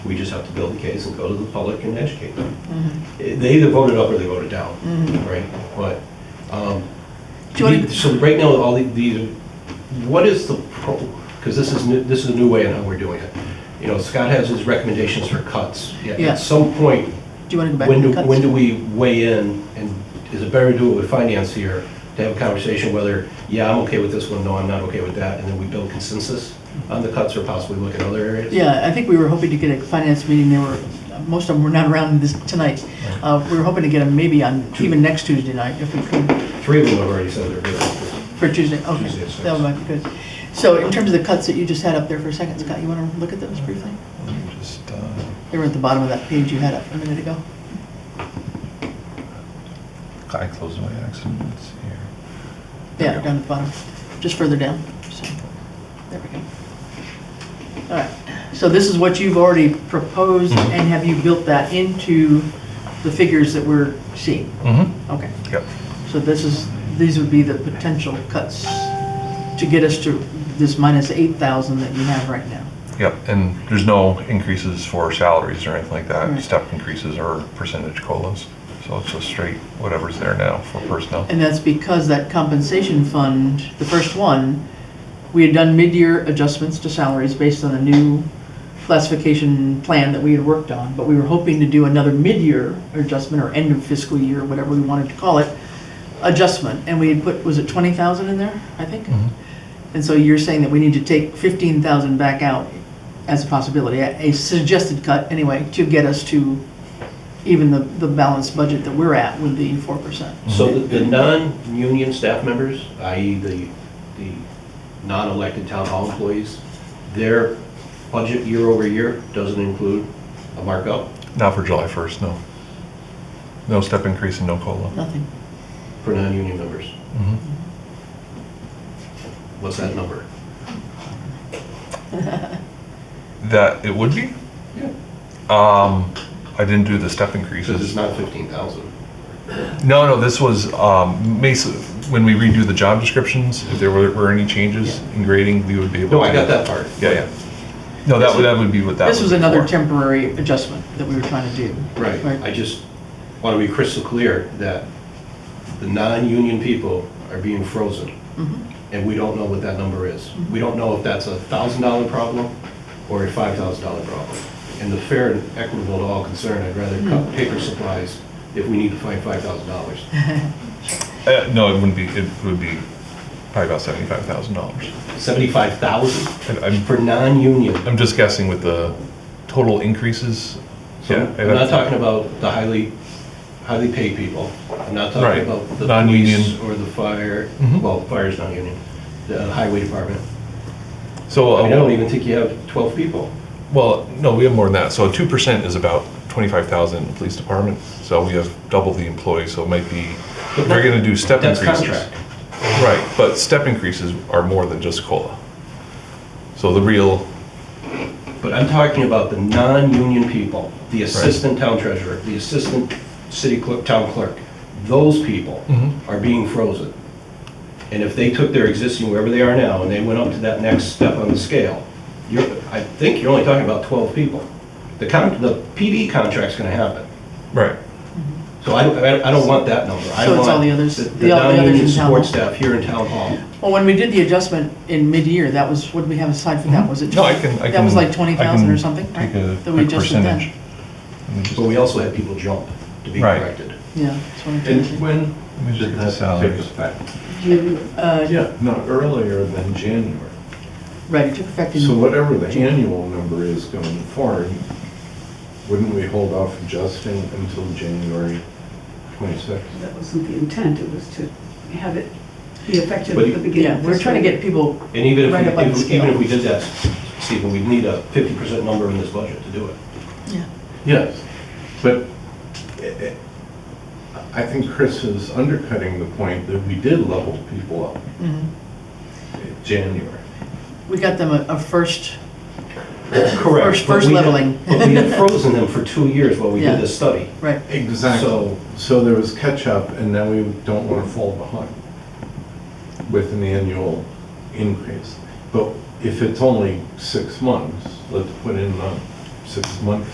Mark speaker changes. Speaker 1: We just have to build the case and go to the public and educate them.
Speaker 2: Mm-hmm.
Speaker 1: Eh, They either voted up or they voted down, right? But, um,
Speaker 2: Do you wanna-
Speaker 1: the- so right now, all the- these, what is the pro, because this is, new- this is a new way in how we're doing it. You know, Scott has his recommendations for cuts. At-
Speaker 2: Yeah.
Speaker 1: At some point,
Speaker 2: Do you want to go back
Speaker 1: when
Speaker 2: to
Speaker 1: do,
Speaker 2: the cuts?
Speaker 1: when do we weigh in, and is it better to do it with finance here, to have a conversation whether, yeah, I'm okay with this one, no, I'm not okay with that, and then we build consensus on the cuts or possibly look at other areas?
Speaker 2: Yeah, I think we were hoping to get a finance meeting, they were, most of them were not around this, tonight. Uh, we were hoping to get them maybe on, even next Tuesday night, if we could,
Speaker 1: Three of them have already said they're good.
Speaker 2: for Tuesday, okay.
Speaker 1: Tuesday at six.
Speaker 2: That might be good. So in terms of the cuts that you just had up there for a second, Scott, you want to look at those briefly?
Speaker 3: Just, uh,
Speaker 2: They were at the bottom of that page you had up a minute ago.
Speaker 3: I closed my accidents here. There
Speaker 2: Yeah,
Speaker 3: we go.
Speaker 2: down at the bottom, just further down, so, there we go. All right, so this is what you've already proposed,
Speaker 1: Mm-hmm.
Speaker 3: Mhm.
Speaker 2: and have you built that into the figures that we're seeing?
Speaker 3: Mm-hmm.
Speaker 2: Okay,
Speaker 3: Yep.
Speaker 2: so this is, these would be the potential cuts to get us to this minus 8,000 that you have right now.
Speaker 3: Yep, and there's no increases for salaries or anything like
Speaker 2: Right.
Speaker 3: that, step increases or percentage colas. So it's just straight whatever's there now for personnel.
Speaker 2: And that's because that compensation fund, the first one, we had done mid-year adjustments to salaries based on the new classification plan that we had worked on, but we were hoping to do another mid-year adjustment or end of fiscal year, whatever we wanted to call it, adjustment, and we had put, was it twenty thousand in there, I think?
Speaker 3: Mhm.
Speaker 1: Mm-hmm.
Speaker 2: And so you're saying that we need to take fifteen thousand back out as a possibility, a a suggested cut anyway, to get us to even the, the balanced budget that we're at with the four percent.
Speaker 1: So the, the non-union staff members, i.e. the, the non-elected town hall employees, their budget year over year doesn't include a markup
Speaker 3: Not for July 1st, no. No step increase and no cola.
Speaker 2: Nothing.
Speaker 1: for non-union members. Mm-hmm.
Speaker 3: Mhm.
Speaker 1: What's that number?
Speaker 3: That, it would be?
Speaker 1: Yeah.
Speaker 3: Um, I didn't do the step increases.
Speaker 1: Because it's not 15,000.
Speaker 3: No, no, this was, um, Mesa, when we redo the job descriptions, if there were, were any changes in grading, we would be able to.
Speaker 1: No, I got that part.
Speaker 3: Yeah, yeah. No, that would, that would be what that would
Speaker 2: This was
Speaker 3: be
Speaker 2: another
Speaker 3: for.
Speaker 2: temporary adjustment that we were trying to do.
Speaker 1: Right, I just want to be crystal clear that the non-union people are being frozen,
Speaker 2: Mhm.
Speaker 1: and we don't know what that number is. We don't know if that's a thousand dollar problem or a five thousand dollar problem. And the fair and equitable to all concerned, I'd rather cut paper supplies if we need to find five thousand dollars.
Speaker 3: Uh, no, it wouldn't be, it would be probably about seventy-five thousand dollars.
Speaker 1: Seventy-five thousand
Speaker 3: I'm,
Speaker 1: for non-union.
Speaker 3: I'm just guessing with the total increases.
Speaker 1: So
Speaker 3: Yeah,
Speaker 1: I'm not talking about the highly, highly paid people. I'm not talking
Speaker 3: Right.
Speaker 1: about the
Speaker 3: Non-union.
Speaker 1: police or the fire,
Speaker 3: Mhm.
Speaker 1: well, fire's not union, the highway department.
Speaker 3: So,
Speaker 1: I mean, I don't
Speaker 3: uh,
Speaker 1: even think you have 12 people.
Speaker 3: well, no, we have more than that. So two percent is about twenty-five thousand in the police department. So we have double the employees, so it might be, if they're gonna do step
Speaker 1: That's
Speaker 3: increases.
Speaker 1: contract.
Speaker 3: Right, but step increases are more than just COLA. So the real,
Speaker 1: But I'm talking about the non-union people, the assistant town treasurer, the assistant city clerk, town clerk. Those people
Speaker 3: Mhm.
Speaker 1: are being frozen. And if they took their existing, wherever they are now, and they went up to that next step on the scale, you're, I think you're only talking about 12 people. The con, the PD contract's gonna happen.
Speaker 3: right,
Speaker 1: So I, I I don't want that number. I
Speaker 2: So it's all
Speaker 1: want
Speaker 2: the others-
Speaker 1: The
Speaker 2: the-
Speaker 1: the
Speaker 2: all the others
Speaker 1: non-union
Speaker 2: in town
Speaker 1: support
Speaker 2: hall?
Speaker 1: staff here in town hall.
Speaker 2: Well, when we did the adjustment in mid-year, that was, what did we have aside for that? Was it?
Speaker 3: Mm-hmm. No, I can- I
Speaker 2: That was
Speaker 3: can-
Speaker 2: like
Speaker 3: I
Speaker 2: 20,000 or
Speaker 3: can
Speaker 2: something, right?
Speaker 3: take a
Speaker 2: That we
Speaker 3: quick
Speaker 2: adjusted then.
Speaker 3: percentage. let me just-
Speaker 1: But we also had people jump to be
Speaker 3: Right.
Speaker 1: corrected.
Speaker 2: Yeah, that's what I'm trying to
Speaker 4: And
Speaker 2: say.
Speaker 4: when
Speaker 3: Let me just
Speaker 4: did
Speaker 3: get the
Speaker 4: that take
Speaker 3: salaries.
Speaker 4: effect?
Speaker 2: You, uh,
Speaker 4: Yeah, no, earlier than January.
Speaker 2: right, it took effect
Speaker 4: So
Speaker 2: in,
Speaker 4: whatever the annual number is going forward, wouldn't we hold off adjusting until January 26th?
Speaker 5: That wasn't the intent, it was to have it be effective
Speaker 1: But
Speaker 5: at
Speaker 1: you-
Speaker 5: the beginning.
Speaker 2: yeah,
Speaker 5: of
Speaker 2: we're
Speaker 5: this
Speaker 2: trying to
Speaker 5: year.
Speaker 2: get people,
Speaker 1: And even
Speaker 2: Right up
Speaker 1: if,
Speaker 2: on the
Speaker 1: if-
Speaker 2: scale.
Speaker 1: even if we did that, Stephen, we'd need a fifty percent number in this budget to do it.
Speaker 2: yeah,
Speaker 4: Yes, but i- i- I think Chris is undercutting the point that we did level people up
Speaker 2: Mm-hmm.
Speaker 4: in January.
Speaker 2: we got them a, a first,
Speaker 1: Correct.
Speaker 2: First-
Speaker 1: but
Speaker 2: first
Speaker 1: we had-
Speaker 2: leveling.
Speaker 1: But we had frozen them for two years while we
Speaker 2: Yeah.
Speaker 1: did this study.
Speaker 2: right,
Speaker 4: Exactly.
Speaker 1: So-
Speaker 4: So there was catch-up, and now we don't want to fall behind with an annual increase. But if it's only six months, let's put in the six months